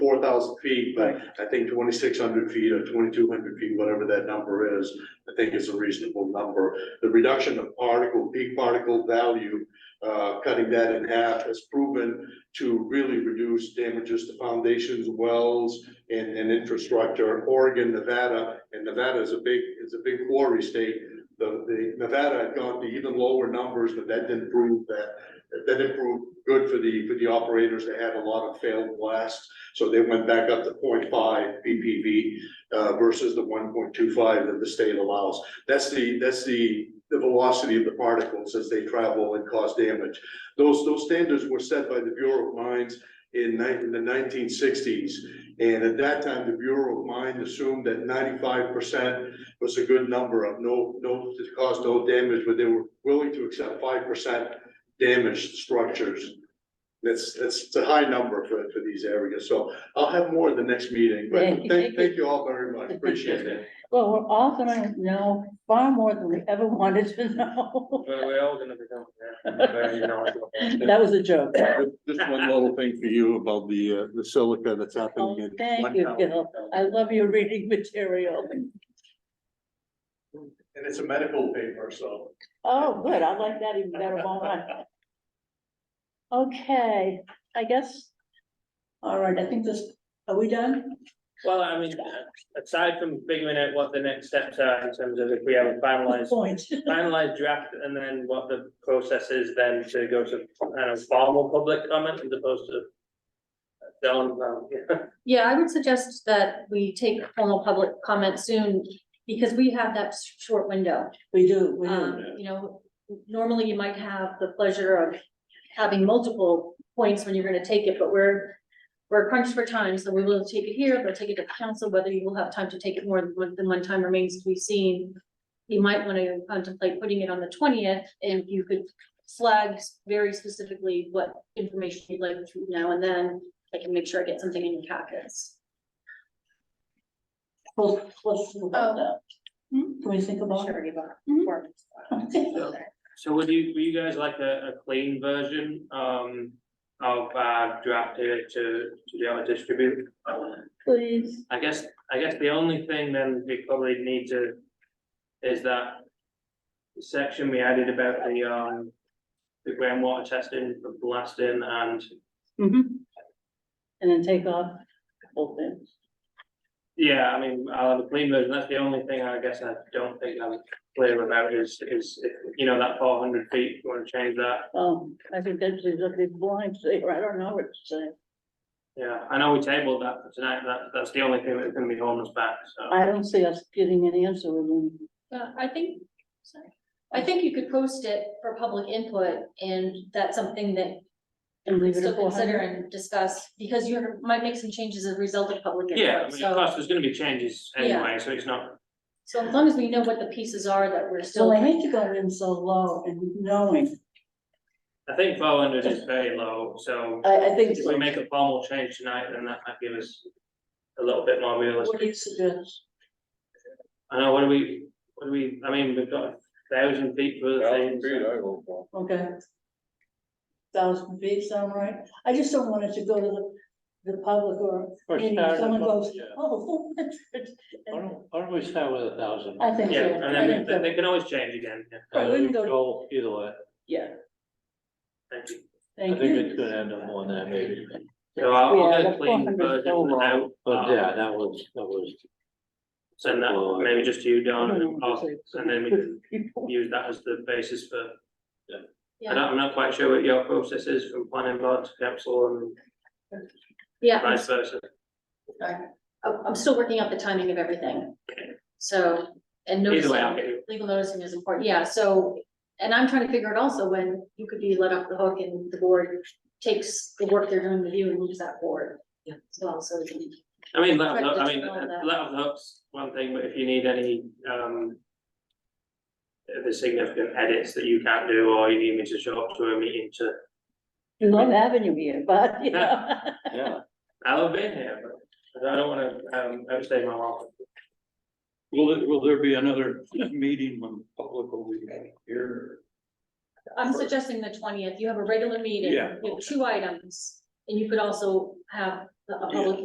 four thousand feet, but I think twenty-six hundred feet or twenty-two hundred feet, whatever that number is, I think is a reasonable number. The reduction of particle, peak particle value, uh, cutting that in half has proven to really reduce damages to foundations, wells, and, and infrastructure. Oregon, Nevada, and Nevada is a big, is a big quarry state. The, the Nevada had gone to even lower numbers, but that didn't prove that, that didn't prove good for the, for the operators. They had a lot of failed blasts. So they went back up to 0.5 BPV uh, versus the one point two five that the state allows. That's the, that's the, the velocity of the particles as they travel and cause damage. Those, those standards were set by the Bureau of Mines in nine, in the nineteen sixties. And at that time, the Bureau of Mines assumed that ninety-five percent was a good number of no, no, to cause no damage, but they were willing to accept five percent damaged structures. That's, that's it's a high number for, for these areas, so I'll have more at the next meeting, but Thank you. thank, thank you all very much, appreciate it. Well, we're all gonna know far more than we ever wanted to know. Well, we're all gonna become. yeah, you know, That was a joke. Just one little thing for you about the, uh, the silica that's Oh, happening in. Thank you, Gil. I love your reading material. And it's a medical paper, so. Oh, good. I like that even better. Well done. Okay, I guess. All right, I think this, are we done? Well, I mean, aside from figuring out what the next steps are in terms of if we have a finalized, Point. finalized draft and then what the process is then to go to kind of formal public comment as opposed to. Don't, um, yeah, Yeah, I would suggest that we take formal public comment soon, because we have that s- short window. We do, we do. Um, you know, normally you might have the pleasure of having multiple points when you're gonna take it, but we're. We're crunched for time, so we will take it here, we'll take it to the council, whether you will have time to take it more than one, than one time remains to be seen. You might wanna contemplate putting it on the twentieth, and you could flag very specifically what information you'd like to know, and then. I can make sure I get something in your packets. We'll, we'll think about that. Hmm? Can we think about it? so would you, would you guys like a, a clean version, um, of, uh, draft to, to, to be able to distribute? Please. I guess, I guess the only thing then we probably need to, is that. Section we added about the, um, the groundwater testing, the blasting and, Mhm. And then take off a couple things. yeah, I mean, I'll have a clean version, that's the only thing I guess I don't think I'm clear about is, is, you know, that four hundred feet, you wanna change that? Um, I think that's exactly blind there. I don't know what to say. Yeah, I know we tabled that for tonight, that, that's the only thing that's gonna be holding us back, so. I don't see us getting an answer within Yeah, Uh, I think, sorry, I think you could post it for public input, and that's something that and leave it still at four consider hundred. and discuss, because you might make some changes as a result of public Yeah, I input, mean, of so. course, there's gonna be changes anyway, so it's not, So as long as we know what the pieces are that we're So still, I hate to go in so low and knowing, I think four hundred is very low, so. I, I think, If we make a formal change tonight, then that might give us a little bit more what do realistic. you suggest? I know, what do we, what do we, I mean, we've got a thousand feet for the things. Okay. Thousand feet sound right? I just don't want it to go to the, the public or, any- someone goes, oh, four hundred. Why don't, why don't we start with a thousand? I think Yeah, so. and I then think they- so. they can always change again, yeah, Right, we can go- Go either way. Yeah, thank you. I thank think it's you. gonna end up more than that maybe. So I'll, Yeah, I'll get that's uh, a clean 400 is version so out. But yeah, that was, that was. Send that maybe just to you, Don, and Mm-hmm. I'll- and then we can use that as the basis for, I yeah, don't, I'm not quite sure what your process is from planning board to council and yeah, I'm, vice versa. I'm- I'm still working out the timing of everything. So, and Either way, I'll noticing, get you. legal noticing is important, yeah, so, and I'm trying to figure it also when you could be let off the hook and the board takes the work they're doing with you and moves that forward. Yeah. So, so. I mean, let, Correct, I that's mean, all that. let of the hooks, one thing, but if you need any, um. If there's significant edits that you can't do, or you need me to show up to a meeting to, We love having you here, but, you know. Yeah. I'll have been here, but I don't wanna, um, overstay my welcome. Will, there- will there be another meeting when public will be here? I'm suggesting the twentieth, you have a regular meeting Yeah. with two items, and you could also have a a public